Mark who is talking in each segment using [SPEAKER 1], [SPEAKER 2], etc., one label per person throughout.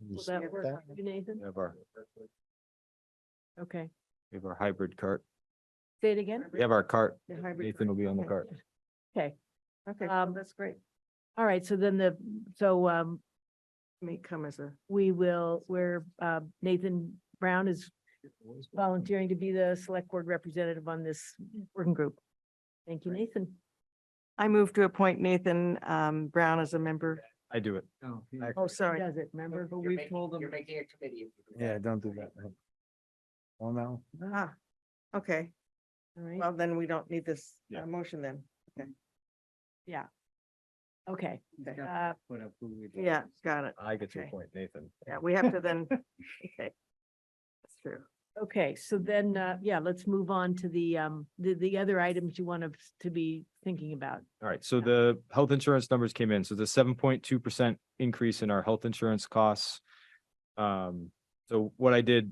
[SPEAKER 1] We'll
[SPEAKER 2] Will
[SPEAKER 1] just
[SPEAKER 2] that
[SPEAKER 1] skip
[SPEAKER 2] work
[SPEAKER 1] that.
[SPEAKER 2] for you, Nathan?
[SPEAKER 1] We Have our,
[SPEAKER 2] Okay,
[SPEAKER 1] we have our hybrid cart.
[SPEAKER 2] say it again.
[SPEAKER 1] We have our cart.
[SPEAKER 2] The hybrid
[SPEAKER 1] Nathan will be on the
[SPEAKER 2] Okay.
[SPEAKER 1] cart.
[SPEAKER 2] Okay,
[SPEAKER 3] Okay,
[SPEAKER 2] Um,
[SPEAKER 3] that's great.
[SPEAKER 2] all right, so then the, so um,
[SPEAKER 3] Me come as a.
[SPEAKER 2] we will, where uh, Nathan Brown is volunteering to be the select board representative on this working group. Thank you, Nathan.
[SPEAKER 3] I move to appoint Nathan um Brown as a member.
[SPEAKER 1] I do it. I-
[SPEAKER 3] Oh,
[SPEAKER 2] He
[SPEAKER 3] sorry.
[SPEAKER 2] Does it, remember?
[SPEAKER 3] But we've told them.
[SPEAKER 4] making a committee.
[SPEAKER 1] Yeah, don't do that. Well, now,
[SPEAKER 3] Ah, okay.
[SPEAKER 2] All right.
[SPEAKER 3] Well, then we don't need this uh,
[SPEAKER 1] Yeah.
[SPEAKER 3] motion then.
[SPEAKER 2] Okay,
[SPEAKER 3] Okay.
[SPEAKER 2] uh,
[SPEAKER 3] Yeah, got it.
[SPEAKER 1] I get your
[SPEAKER 3] Okay.
[SPEAKER 1] point, Nathan.
[SPEAKER 3] Yeah, we have to then. Okay. That's true.
[SPEAKER 2] okay, so then, uh, yeah, let's move on to the, um, the, the other items you want us to be thinking about.
[SPEAKER 1] All right, so the health insurance numbers came in, so the seven point two percent increase in our health insurance costs. Um, so what I did,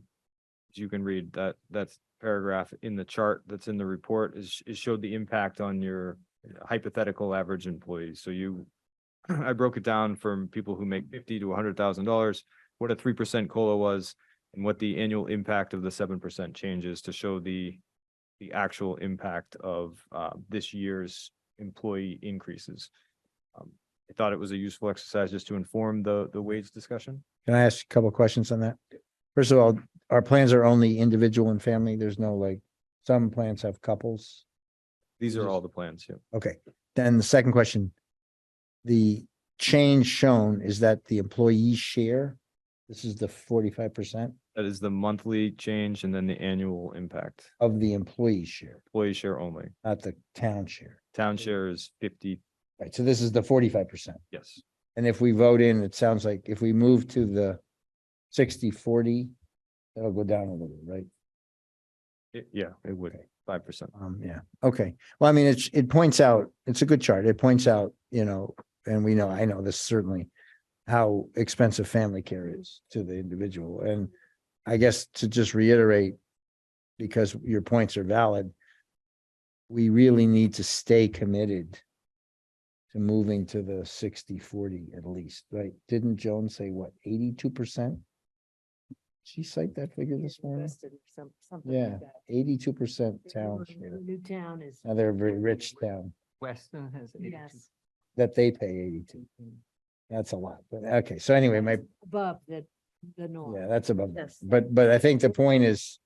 [SPEAKER 1] as you can read that, that's paragraph in the chart that's in the report is, is showed the impact on your hypothetical average employee, so you. I broke it down from people who make fifty to hundred thousand dollars, what a three percent COLA was, and what the annual impact of the seven percent changes to show the. The actual impact of uh this year's employee increases. Um, I thought it was a useful exercise just to inform the, the wage discussion.
[SPEAKER 5] Can I ask a couple of questions on that? First of all, our plans are only individual and family. There's no like, some plans have couples.
[SPEAKER 1] These are all the plans, yeah.
[SPEAKER 5] Okay, then the second question. The change shown is that the employee share, this is the forty-five percent
[SPEAKER 1] That is the monthly change and then the annual impact,
[SPEAKER 5] of the employee share,
[SPEAKER 1] employee share only.
[SPEAKER 5] not the town share.
[SPEAKER 1] Town share is fifty,
[SPEAKER 5] Right, so this is the forty-five percent.
[SPEAKER 1] yes,
[SPEAKER 5] And if we vote in, it sounds like if we move to the 60-40, forty, that'll go down a little, right?
[SPEAKER 1] It- yeah, it would,
[SPEAKER 5] Okay.
[SPEAKER 1] five percent.
[SPEAKER 5] Um, yeah, okay. Well, I mean, it's, it points out, it's a good chart. It points out, you know, and we know, I know this certainly. How expensive family care is to the individual. And I guess to just reiterate. Because your points are valid. We really need to stay committed. To moving to the 60-40 at least, right? Didn't Joan say what, eighty-two percent? She cite that figure this morning? Yeah. Eighty-two percent town share.
[SPEAKER 2] New town is,
[SPEAKER 5] Now they're a very rich town
[SPEAKER 4] Weston has.
[SPEAKER 2] yes,
[SPEAKER 5] that they pay eighty-two. That's a lot, but okay, so anyway, my,
[SPEAKER 2] above the, the norm.
[SPEAKER 5] yeah, that's above.
[SPEAKER 2] Yes.
[SPEAKER 5] But, but I think the point is,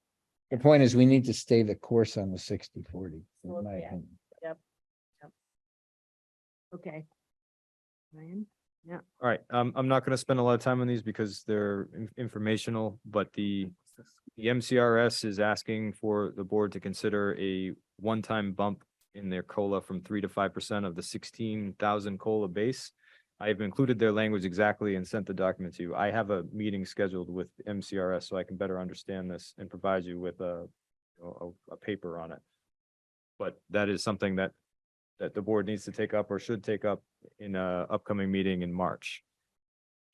[SPEAKER 5] the point is we need to stay the course on the sixty forty,
[SPEAKER 2] Well,
[SPEAKER 5] in my
[SPEAKER 2] yeah.
[SPEAKER 5] opinion.
[SPEAKER 2] Okay. Ryan?
[SPEAKER 1] All right, um, I'm not gonna spend a lot of time on these because they're in- informational, but the the MCRS is asking for the board to consider a one-time bump in their COLA from three to five percent of the sixteen thousand COLA base. I have included their language exactly and sent the document to you. I have a meeting scheduled with MCRS so I can better understand this and provide you with a, a, a paper on it. But that is something that, that the board needs to take up or should take up in a upcoming meeting in March.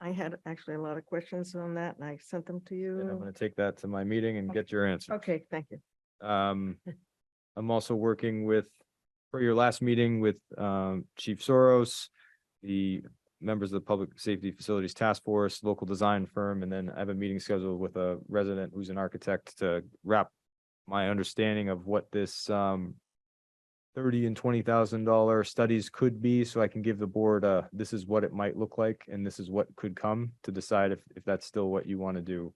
[SPEAKER 3] I had actually a lot of questions on that and I sent them to
[SPEAKER 1] And I'm
[SPEAKER 3] you.
[SPEAKER 1] gonna take that to my meeting and get your answer.
[SPEAKER 3] Okay, thank you.
[SPEAKER 1] Um, I'm also working with, for your last meeting with, um, Chief Soros, the members of the Public Safety Facilities Task Force, local design firm, and then I have a meeting scheduled with a resident who's an architect to wrap my understanding of what this, um, thirty and twenty thousand dollar studies could be, so I can give the board a, this is what it might look like, and this is what could come to decide if, if that's still what you want to do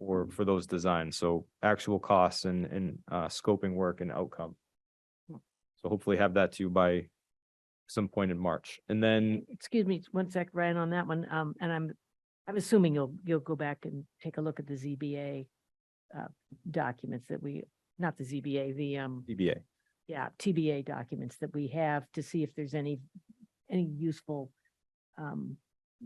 [SPEAKER 1] or for those designs, so actual costs and, and, uh, scoping work and outcome. So hopefully have that to you by some point in March. And then,
[SPEAKER 2] Excuse me, one sec, Ryan, on that one, um, and I'm, I'm assuming you'll, you'll go back and take a look at the ZBA uh, documents that we, not the ZBA, the, um,
[SPEAKER 1] DBA,
[SPEAKER 2] yeah, TBA documents that we have to see if there's any, any useful um,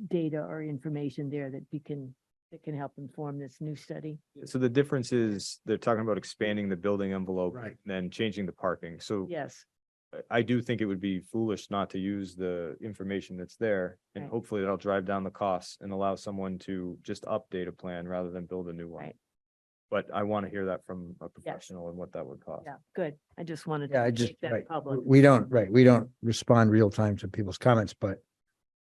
[SPEAKER 2] data or information there that we can, that can help inform this new study.
[SPEAKER 1] so the difference is they're talking about expanding the building envelope.
[SPEAKER 5] Right.
[SPEAKER 1] Then changing the parking, so
[SPEAKER 2] Yes,
[SPEAKER 1] I- I do think it would be foolish not to use the information that's there. And
[SPEAKER 2] Right.
[SPEAKER 1] hopefully that'll drive down the costs and allow someone to just update a plan rather than build a new one.
[SPEAKER 2] Right.
[SPEAKER 1] But I want to hear that from a professional and what that would cost.
[SPEAKER 2] yeah, good. I just wanted.
[SPEAKER 5] Yeah, I
[SPEAKER 2] to
[SPEAKER 5] just,
[SPEAKER 2] make that
[SPEAKER 5] right,
[SPEAKER 2] Public.
[SPEAKER 5] we don't, right, we don't respond real time to people's comments, but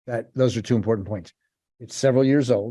[SPEAKER 5] that, those are two important points. It's several years old.